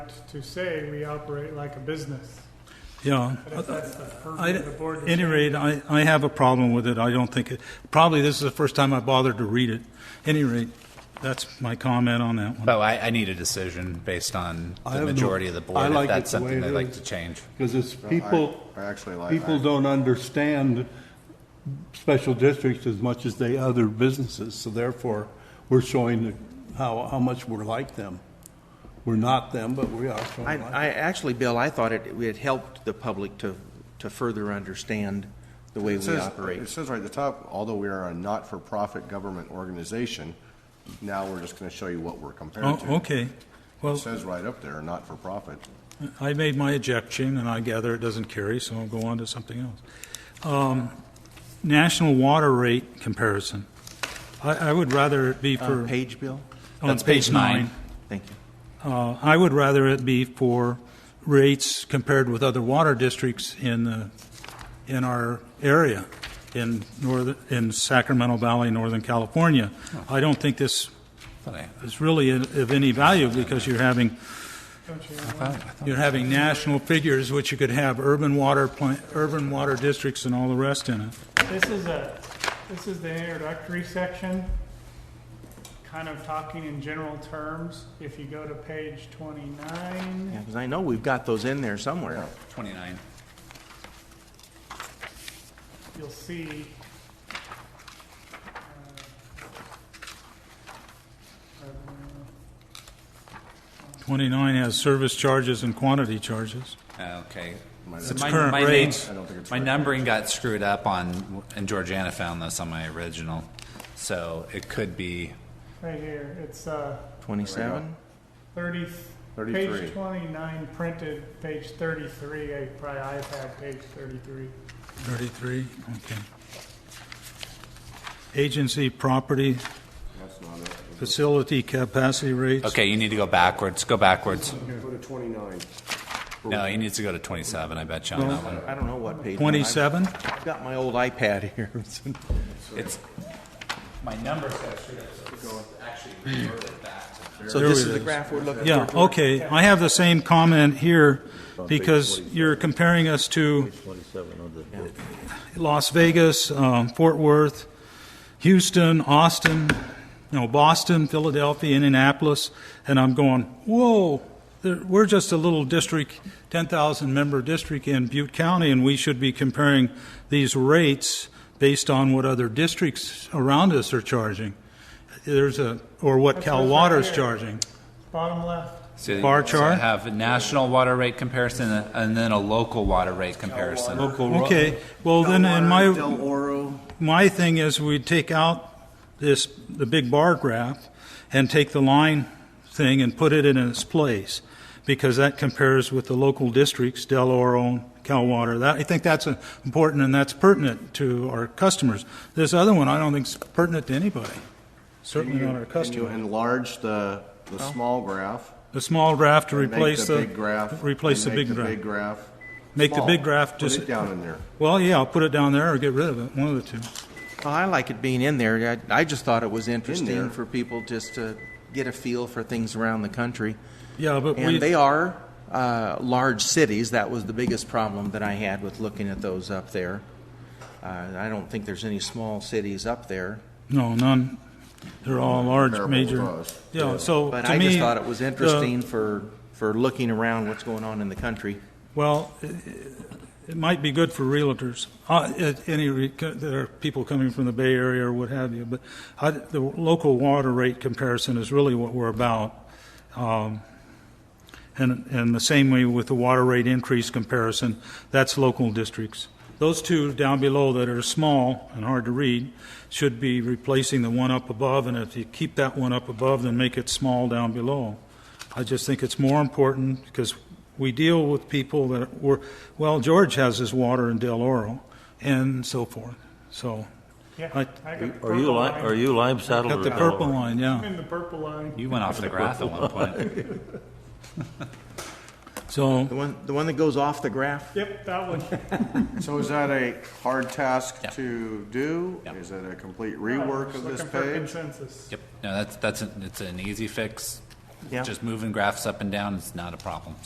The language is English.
to say we operate like a business. Yeah. But if that's the I, purview of the board. at to any change- rate, I, I have a problem with it. I don't think it, probably this is the first time I bothered to read it. Any rate, that's my comment on that one. But I, I need a decision based on I the have no- majority of the board, I like if it that's the way something it they like is. to change. Because it's people, I actually like- people don't understand special districts as much as they other businesses, so therefore, we're showing how, how much we're like them. We're not them, but we are I, showing like. I, actually, Bill, I thought it, it helped the public to, to further understand the way It we says- operate. It says right at the top, although we are a not-for-profit government organization, now we're just going to show you what we're compared Oh, to. okay. It Well, says right up there, not-for-profit. I made my objection, and I gather it doesn't carry, so I'll go on to something else. Um, National water rate comparison. I, I would rather it be Uh, for. Page, Bill? on That's page nine. Thank you. Uh, I would rather it be for rates compared with other water districts in, the- in our area, in northern, in Sacramento Valley, Northern California. I don't think this Funny. is really of any value because you're having, you're having national figures, which you could have urban water plant, urban water districts and all the rest in it. This is a, this is the introductory section, kind of talking in general terms. If you go to page Yeah, twenty-nine, because I know we've got those in there somewhere. 29. you'll see. uh, revenue. 29 has service charges and quantity charges. Uh, Okay. It's my- current my rates. I don't think it's My right. numbering got screwed up on, and Georgiana found this on my original, so it could be, Right here, it's, uh, Twenty-seven? thirty, Thirty-three. page twenty-nine printed, page thirty-three, I probably iPad page thirty-three. 33, okay. Agency property, That's not it. facility capacity rates. okay, you need to go backwards, go backwards. Go to 29. No, you need to go to 27, I bet you on that one. I don't know what page. Twenty-seven? I've got my old iPad here. It's, my numbers got screwed up, so it's actually reverted back to So There this it is the is. graph we're looking for. Yeah, okay. I have the same comment here because you're comparing us to Las Vegas, um, Fort Worth, Houston, Austin, no, Boston, Philadelphia, Indianapolis, and I'm going, whoa, there- we're just a little district, 10,000 member district in Butte County, and we should be comparing these rates based on what other districts around us are charging. There's a, or what That's Cal what's right Water's here. charging. Bottom left, So- Bar so chart? I have a national water rate comparison and then a local water rate comparison. Okay, well, then, and my, Del Oro. my thing is we take out this, the big bar graph and take the line thing and put it in its place, because that compares with the local districts, Del Oro, Cal Water. That, I think that's uh, important and that's pertinent to our customers. This other one, I don't think is pertinent to anybody, certainly not our Can you customer. enlarge the, the small graph? The small graph to and make replace the. big graph? Replace the and make big graph. big graph. Make the small. big graph Put just. it down in there. Well, yeah, I'll put it down there or get rid of it, one of the two. Well, I like it being in there. I, I just thought it was interesting there. for people just to get a feel for things around the country. Yeah, but we. And they are uh, large cities. That was the biggest problem that I had with looking at those up there. Uh, I don't think there's any small cities up there. No, none. They're all large, Comparable to major. us. Yeah, so But to I me. just thought it was the- interesting for, for looking around what's going on in the country. Well, it- it might be good for realtors, Uh, at any, re- there are people coming from the Bay Area or what have you, but I- the local water rate comparison is really what we're about. And, and the same way with the water rate increase comparison, that's local districts. Those two down below that are small and hard to read should be replacing the one up above, and if you keep that one up above, then make it small down below. I just think it's more important because we deal with people that were, well, George has his water in Del Oro and so forth. So, yeah. I- I got Are you purple li- line. are you lime saddled? got or the no? purple line, yeah. In the purple line, You went off the graph at one point. So, The one, the one that goes off the graph? yep, that one. So is that a hard task to do? Yeah. Is it a complete rework of this Looking for page? consensus. Yep, no, that's, that's, an- it's an easy fix. Yeah. Just moving graphs up and down is not a problem.